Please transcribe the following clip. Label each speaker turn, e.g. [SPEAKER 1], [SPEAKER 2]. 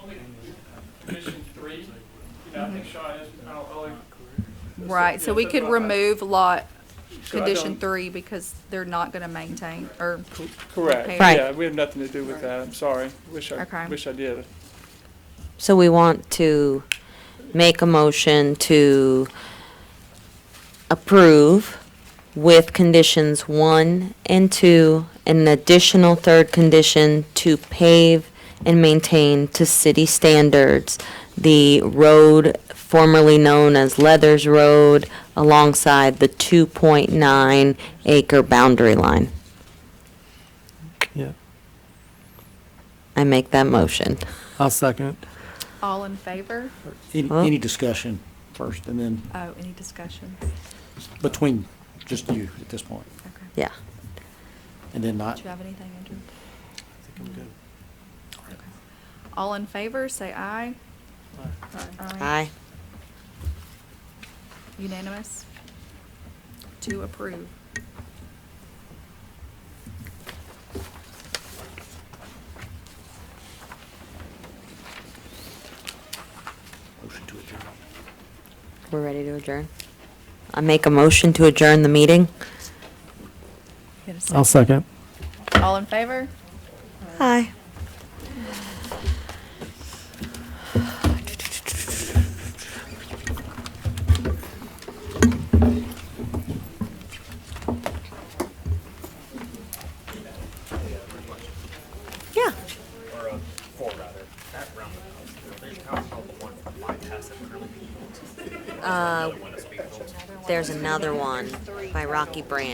[SPEAKER 1] think Shaw is, I don't believe.
[SPEAKER 2] Right, so
[SPEAKER 1] Yeah,
[SPEAKER 2] we
[SPEAKER 1] so
[SPEAKER 2] could
[SPEAKER 1] do I.
[SPEAKER 2] remove lot
[SPEAKER 1] So I
[SPEAKER 2] condition
[SPEAKER 1] don't-
[SPEAKER 2] three because they're not gonna maintain, or,
[SPEAKER 1] Correct,
[SPEAKER 2] Right.
[SPEAKER 1] yeah, we have nothing to do with that, I'm sorry, wish I,
[SPEAKER 2] Okay.
[SPEAKER 1] wish I did.
[SPEAKER 3] So we want to make a motion to approve with conditions one and two, and an additional third condition to pave and maintain to city standards the road formerly known as Leathers Road alongside the 2.9 acre boundary line.
[SPEAKER 4] Yeah,
[SPEAKER 3] I make that motion.
[SPEAKER 4] I'll second.
[SPEAKER 2] all in favor?
[SPEAKER 5] Any,
[SPEAKER 3] Huh?
[SPEAKER 5] any discussion first, and then
[SPEAKER 2] Oh, any discussions?
[SPEAKER 5] between just you at this point,
[SPEAKER 2] Okay.
[SPEAKER 3] Yeah.
[SPEAKER 5] and then
[SPEAKER 2] Do
[SPEAKER 5] not.
[SPEAKER 2] you have anything, Andrew?
[SPEAKER 4] I think I'm good.
[SPEAKER 2] Okay. All in favor, say aye.
[SPEAKER 3] Aye.
[SPEAKER 2] Unanimous? To approve.
[SPEAKER 5] Motion to adjourn.
[SPEAKER 3] We're ready to adjourn. I make a motion to adjourn the meeting.
[SPEAKER 2] Get a
[SPEAKER 4] I'll second.
[SPEAKER 2] All in favor?
[SPEAKER 3] Aye. Yeah. Uh, There's another one by Rocky Branch.